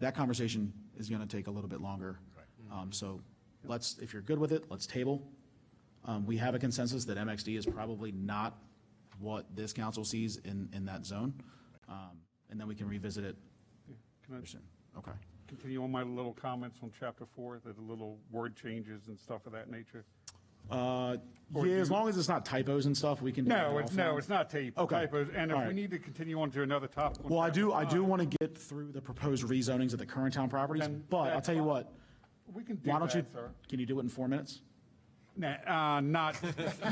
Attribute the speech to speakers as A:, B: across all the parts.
A: that conversation is gonna take a little bit longer. Um, so let's, if you're good with it, let's table. Um, we have a consensus that MXD is probably not what this council sees in, in that zone. Um, and then we can revisit it
B: Can I
A: Okay.
B: continue on my little comments on chapter four, the little word changes and stuff of that nature?
A: Uh,
B: Or
A: yeah, as
B: you-
A: long as it's not typos and stuff, we can. do
B: No,
A: that
B: it's, no,
A: offline.
B: it's not tape-
A: Okay.
B: typos, and
A: All
B: if we
A: right.
B: need to continue on to another topic. on
A: Well, I
B: chapter
A: do, I do
B: five,
A: want to get through the proposed rezonings of the current town properties,
B: Uh, Then
A: but I'll
B: that's
A: tell you
B: fine.
A: what,
B: We can do
A: why don't you,
B: that, sir.
A: can you do it in four minutes?
B: Nah, uh, not,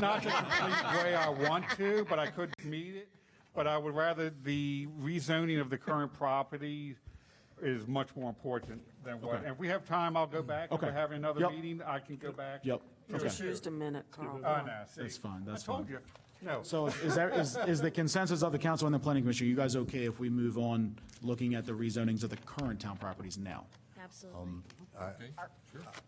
B: not the complete way I want to, but I could meet it. But I would rather the rezoning of the current property is much more important than what, if we have time, I'll go back. If we're
A: Okay.
B: having another
A: Yep.
B: meeting, I can go back.
A: Yep. Okay.
C: Just used a minute, Carl.
B: Oh, no, see.
A: That's fine, that's
B: I told
A: fine.
B: you, no.
A: So is there, is, is the consensus of the council and the planning commission, you guys okay if we move on looking at the rezonings of the current town properties now?
D: Absolutely.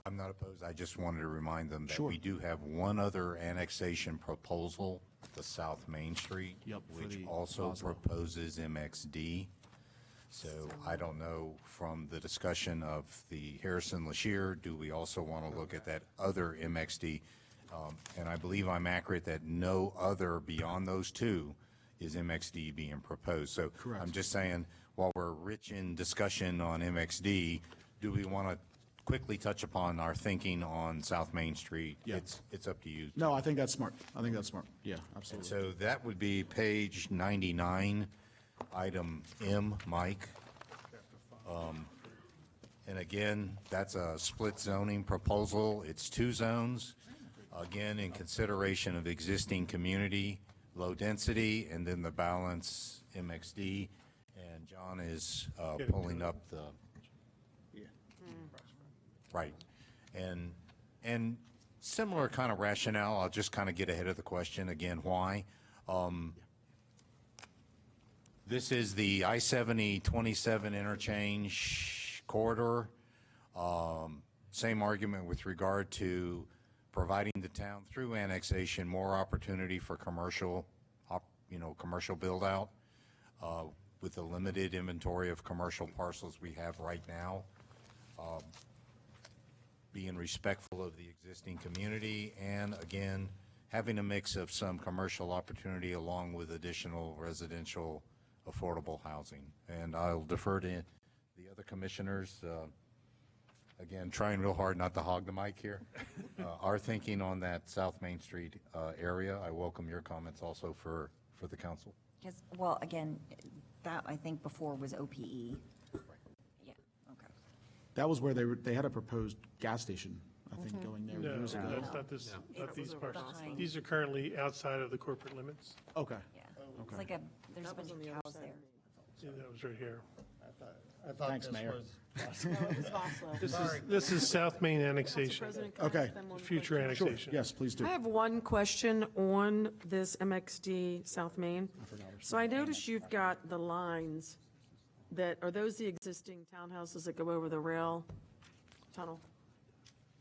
E: I'm not opposed. I just wanted to remind them that we do have one other annexation proposal, the South Main Street,
A: Yep, for
E: which
A: the
E: also
A: Boswell.
E: proposes MXD. So I don't know from the discussion of the Harrison Lashir, do we also want to look at that other MXD? Um, And I believe I'm accurate that no other beyond those two is MXD being proposed. So I'm just saying, while we're rich in discussion on MXD, do we want to quickly touch upon our thinking on South Main Street?
A: Yeah.
E: It's, it's up to you.
A: No, I think that's smart. I think that's smart. Yeah, absolutely.
E: So that would be page 99, item M, Mike. Um, And again, that's a split zoning proposal. It's two zones. Again, in consideration of existing community, low density, and then the balance MXD. And John is uh, pulling up the, right. And, and similar kind of rationale, I'll just kind of get ahead of the question again, why? Um, This is the I-70-27 interchange corridor. Um, Same argument with regard to providing the town through annexation more opportunity for commercial, op- you know, commercial build-out uh, with the limited inventory of commercial parcels we have right now. Um, Being respectful of the existing community and again, having a mix of some commercial opportunity along with additional residential affordable housing. And I'll defer to the other commissioners. uh, Again, trying real hard not to hog the mic here. Uh, Our thinking on that South Main Street uh, area, I welcome your comments also for, for the council.
F: Because, well, again, that I think before was OPE. Yeah, okay.
A: That was where they were, they had a proposed gas station, I think, going there
G: No,
A: years ago.
G: that's not this, not
F: It's
G: these parcels.
F: behind.
G: These are currently outside of the corporate limits.
A: Okay.
F: Yeah. It's like a, there's a bunch of cows there.
G: Yeah, That was right here.
H: I thought
A: Thanks,
H: this
A: Mayor.
H: was-
G: This is, this is South Main annexation,
A: Okay.
G: future annexation.
A: Yes, please do.
C: I have one question on this MXD South Main. So I notice you've got the lines that, are those the existing townhouses that go over the rail tunnel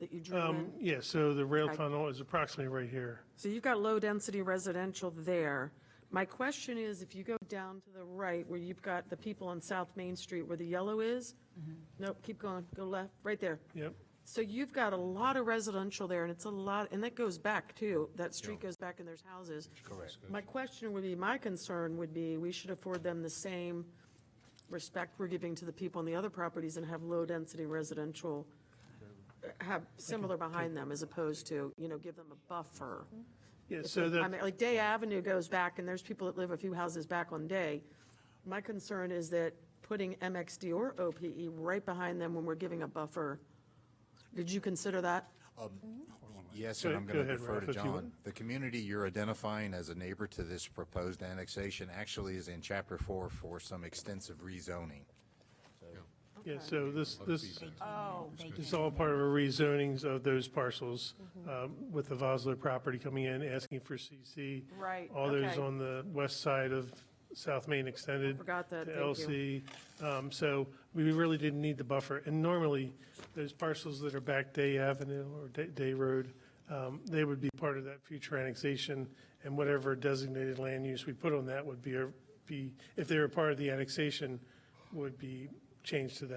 C: that you drew in?
G: Um, yeah, so the rail
C: Okay.
G: tunnel is approximately right here.
C: So you've got low-density residential there. My question is, if you go down to the right, where you've got the people on South Main Street where the yellow is, nope, keep going, go left, right there.
G: Yep.
C: So you've got a lot of residential there, and it's a lot, and that goes back too. That street goes back and there's houses. Correct. My question would be, my concern would be, we should afford them the same respect we're giving to the people on the other properties and have low-density residential, uh, have similar behind them as opposed to, you know, give them a buffer.
G: Yeah, so
C: I
G: that,
C: mean, like Day Avenue goes back, and there's people that live a few houses back on Day. My concern is that putting MXD or OPE right behind them when we're giving a buffer, did you consider that?
E: Yes,
G: Go-
E: and I'm
G: go
E: going to
G: ahead,
E: defer
G: Ralph,
E: to
G: if you
E: John.
G: would.
E: The community you're identifying as a neighbor to this proposed annexation actually is in chapter four for some extensive rezoning.
G: yeah, so this, this
F: Oh, they
G: is all part of a rezonings of those parcels
C: Mm-hmm.
G: um, with the Vosler property coming in, asking for CC.
C: Right,
G: All those
C: okay.
G: on the west side of South Main Extended.
C: Forgot that,
G: to
C: thank you.
G: LC. Um, So we really didn't need the buffer. And normally, those parcels that are back Day Avenue or Day- Day Road, um, they would be part of that future annexation, and whatever designated land use we put on that would be, be, if they were part of the annexation, would be changed to that